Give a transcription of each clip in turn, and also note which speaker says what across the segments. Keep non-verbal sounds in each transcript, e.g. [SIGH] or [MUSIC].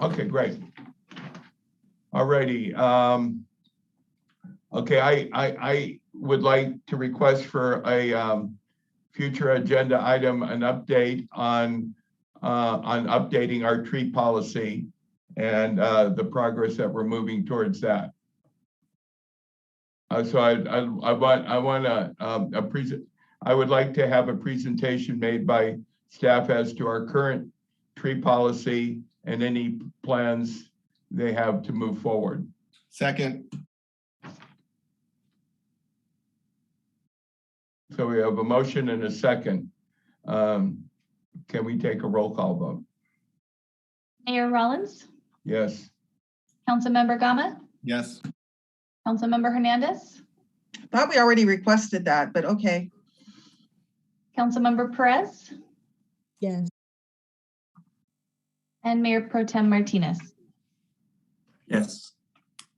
Speaker 1: Okay, great. All righty. um, Okay, I, I, I would like to request for a um, future agenda item, an update on, uh, on updating our tree policy and uh, the progress that we're moving towards that. Uh, So I, I I want, I want to, a present, I would like to have a presentation made by staff as to our current tree policy and any plans they have to move forward.
Speaker 2: Second,
Speaker 1: So we have a motion and a second. Um, Can we take a roll call vote?
Speaker 3: Mayor Rollins,
Speaker 1: Yes,
Speaker 3: Councilmember Gama,
Speaker 2: yes,
Speaker 3: Councilmember Hernandez,
Speaker 4: Thought we already requested that, but okay.
Speaker 3: Councilmember Perez,
Speaker 5: Yes.
Speaker 3: and Mayor Pro Tem Martinez.
Speaker 6: Yes,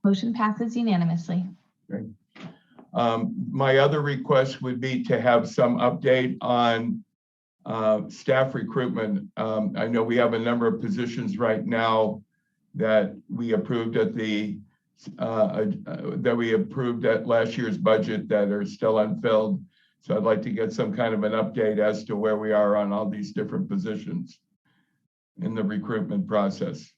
Speaker 3: Motion passes unanimously.
Speaker 1: Um, my other request would be to have some update on uh, staff recruitment. Um, I know we have a number of positions right now that we approved at the, uh, uh, that we approved at last year's budget that are still unfilled. So I'd like to get some kind of an update as to where we are on all these different positions in the recruitment process.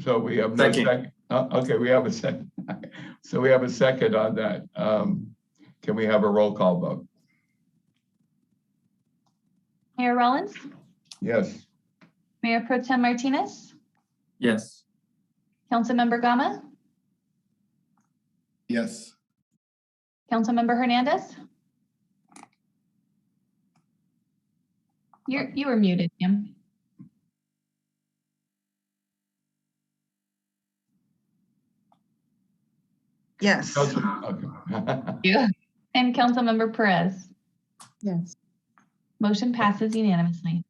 Speaker 1: So we have no
Speaker 6: Second.
Speaker 1: second, okay, we have a second. [LAUGHS] So we have a second on that. Um, Can we have a roll call vote?
Speaker 3: Mayor Rollins,
Speaker 1: Yes,
Speaker 3: Mayor Pro Tem Martinez,
Speaker 6: yes,
Speaker 3: Councilmember Gama,
Speaker 2: yes,
Speaker 3: Councilmember Hernandez. You're, you were muted, ma'am.
Speaker 4: Yes,
Speaker 1: Council- okay. [LAUGHS]
Speaker 3: You. And Councilmember Perez.
Speaker 5: Yes.
Speaker 3: Motion passes unanimously.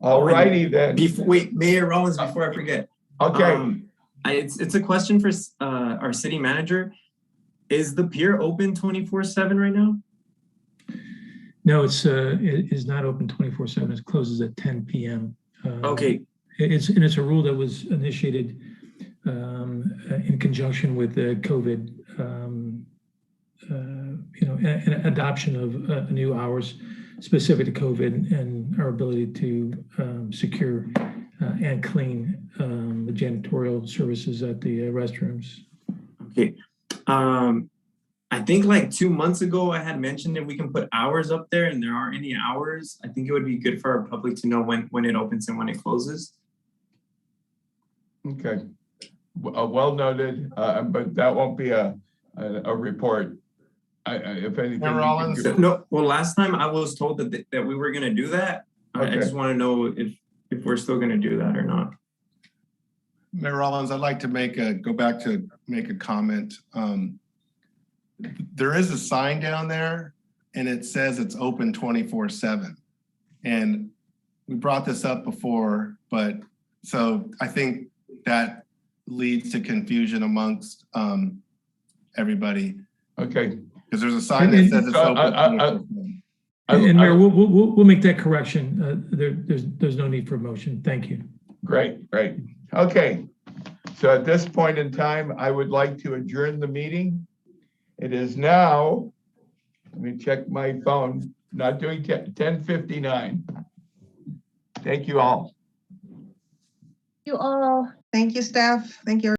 Speaker 1: All righty then.
Speaker 6: before, wait, Mayor Rollins, before I forget.
Speaker 1: Okay,
Speaker 6: um, I, it's, it's a question for, s- uh, our city manager. Is the pier open twenty-four seven right now?
Speaker 7: No, it's, uh, it is not open twenty-four seven. It closes at ten PM. Um,
Speaker 6: Okay,
Speaker 7: it- It's, and it's a rule that was initiated, um, uh, in conjunction with the COVID, um, uh, you know, a- a- adoption of, uh, new hours specific to COVID and our ability to, um, secure, uh, and clean, um, the janitorial services at the uh, restrooms.
Speaker 6: okay. Um, I think like two months ago, I had mentioned if we can put hours up there and there aren't any hours, I think it would be good for our public to know when, when it opens and when it closes.
Speaker 1: okay. W- uh, Well noted, uh, but that won't be a, a, a report. I, I- if anything.
Speaker 2: Mayor Rollins?
Speaker 1: we can-
Speaker 6: No, well, last time I was told that, that we were gonna do that. I I
Speaker 1: Okay.
Speaker 6: just wanna know if, if we're still gonna do that or not.
Speaker 2: Mayor Rollins, I'd like to make a, go back to make a comment. Um, There is a sign down there and it says it's open twenty-four seven. And we brought this up before, but so I think that leads to confusion amongst um everybody.
Speaker 1: Okay.
Speaker 2: Because there's a sign that says it's
Speaker 1: Uh, I- I- I-
Speaker 2: open.
Speaker 1: I-
Speaker 7: And and Mayor,
Speaker 1: I-
Speaker 7: we'll, we'll- we'll, we'll make that correction. Uh, there, there's, there's no need for a motion. Thank you.
Speaker 1: Great, great. Okay. So at this point in time, I would like to adjourn the meeting. It is now, let me check my phone, not doing ten, ten fifty-nine. Thank you all.
Speaker 5: You all.
Speaker 4: thank you, staff. Thank you.